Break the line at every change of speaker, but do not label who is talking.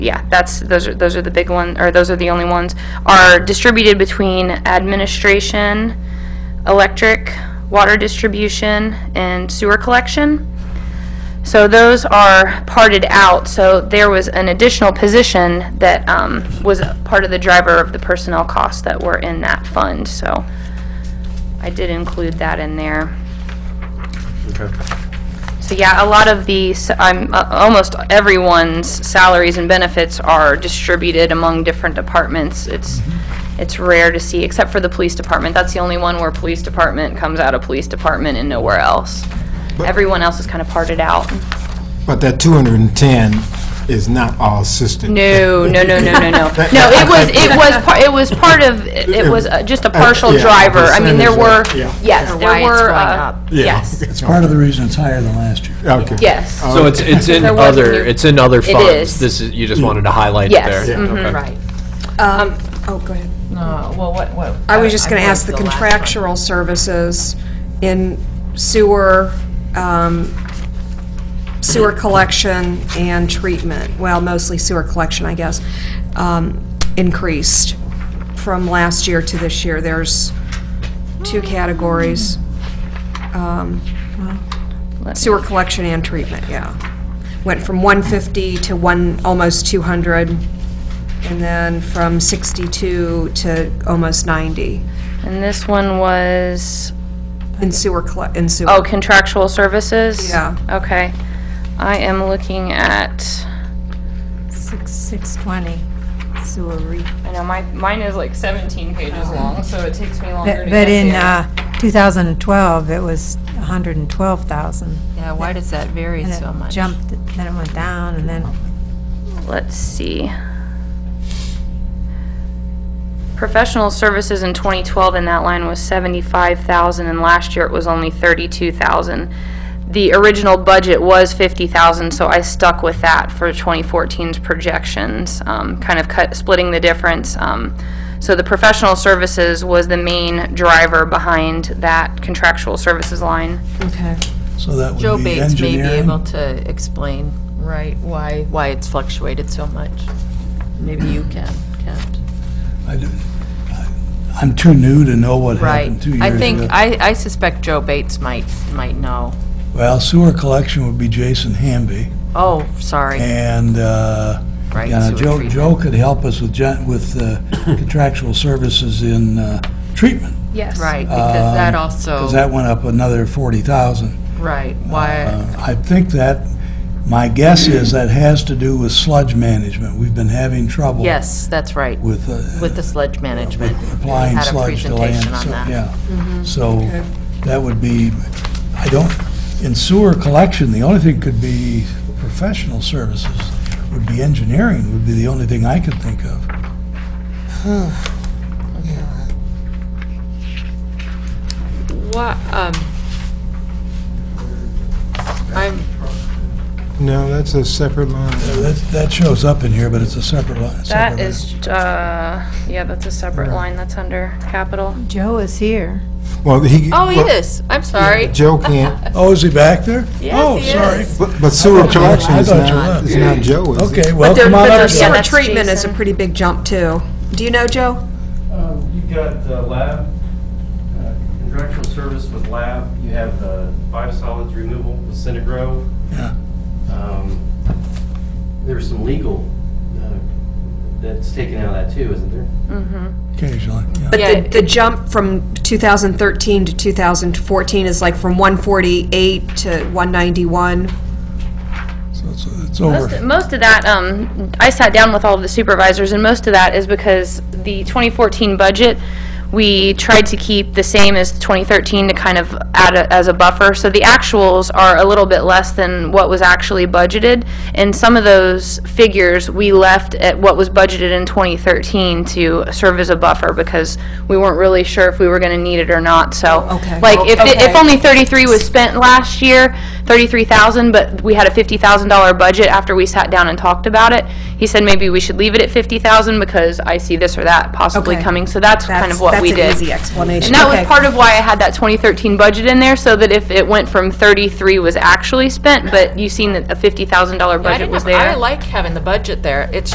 yeah, that's, those are, those are the big one, or those are the only ones, are distributed between administration, electric, water distribution, and sewer collection. So those are parted out, so there was an additional position that um, was a part of the driver of the personnel costs that were in that fund, so I did include that in there.
Okay.
So yeah, a lot of these, I'm, uh, almost everyone's salaries and benefits are distributed among different departments. It's,
Mm-hmm.
it's rare to see, except for the police department. That's the only one where police department comes out of police department and nowhere else. Everyone else is kind of parted out.
But that 210 is not all system.
No, no, no, no, no, no. No, it was, it was, par- it was part of, it was uh, just a partial
Yeah,
driver. I mean, there were,
percentage, yeah.
yes,
why
there
it's
were,
going
uh,
up.
Yeah.
yes,
It's
Part of the reason it's higher than last year.
Okay.
yes.
Oh,
So it's, it's in
There was
other,
new-
it's in other funds?
is.
This is, you just wanted to highlight it
Yes, Mm-hmm.
there? Okay.
Right.
Um, Oh, go ahead.
No, well, what, what?
I was just going to
moved
ask the
last one.
contractual services in sewer, um, sewer collection and treatment, well, mostly sewer collection, I guess, um, increased from last year to this year. There's two categories. um, Sewer collection and treatment, yeah. Went from 150 to one, almost 200, and then from 62 to almost 90
And this one was,
in sewer, colle- in sewer.
oh, contractual services?
Yeah.
Okay. I am looking at,
Six, six twenty, sewer re.
I know, my, mine is like 17 pages long, so it takes me longer
But
to
but
get
in
there.
uh, 2012, it was 112,000.
Yeah, why does that vary
And
so
it
much?
jumped, then it went down, and then
Let's see. Professional services in 2012 in that line was 75,000 and last year it was only 32,000. The original budget was 50,000, so I stuck with that for 2014's projections, um, kind of cut, splitting the difference. Um, So the professional services was the main driver behind that contractual services line.
Okay.
So that
Joe
would be
Bates may be able
engineering.
to explain, right, why, why it's fluctuated so much. Maybe you can, Kent.
I do- I- I'm too new to know what
Right.
happened two years ago.
I think, I, I suspect Joe Bates might, might know.
Well, sewer collection would be Jason Hamby,
Oh, sorry.
and, uh,
Right,
yeah,
sewer
Joe,
treatment.
Joe could help us with, gen- with uh, contractual services in uh, treatment,
Yes.
Right, because that also,
Um, because that went up another 40,000.
right, why,
Uh, I think that, my guess is that has to do with sludge management. We've been having trouble.
yes, that's right,
With, uh,
with the sledge management.
applying
Had a
sludge to land.
presentation on
so-
that.
Yeah. So that would be, I don't, in sewer collection, the only thing could be professional services, would be engineering, would be the only thing I could think of.
What, um, I'm,
No, that's a separate line.
That, that shows up in here, but it's a separate line.
That is, uh, yeah, that's a separate line, that's under capital.
Joe is here.
Well, he.
oh, he is, I'm sorry.
Joe can't,
Oh, is he back there? Oh,
he
sorry.
but but sewer collection is
I thought you
not,
were.
is not Joe, is it?
Okay, well,
There-
come on
but
up.
their
there's- yeah,
Joe.
sewer
that's
treatment is a
Jason.
pretty big jump, too. Do you know, Joe?
Um, You've got the lab, uh, contractual service with lab, you have the biosolids removal with Centigro.
Yeah.
Um, There's some legal uh, that's taken out of that too, isn't there?
Occasionally, yeah.
But
Yeah.
the, the jump from 2013 to 2014 is like from 148 to 191.
So it's, it's
Most,
over.
most of that, um, I sat down with all of the supervisors, and most of that is because the 2014 budget, we tried to keep the same as 2013 to kind of add a, as a buffer. So the actuals are a little bit less than what was actually budgeted, and some of those figures we left at what was budgeted in 2013 to serve as a buffer because we weren't really sure if we were going to need it or not. So,
Okay.
like, if it- if
Okay.
only only 33 was spent last year, 33,000, but we had a $50,000 budget after we sat down and talked about it. He said maybe we should leave it at 50,000 because I see this or that possibly
Okay.
coming, so that's kind
That's-
of what we did.
That's an easy explanation.
And that was
Okay.
part of why I had that 2013 budget in there, so that if it went from 33 was actually spent, but you seen that a $50,000
I
budget
didn't
was
have-
there.
I like having the budget there. It's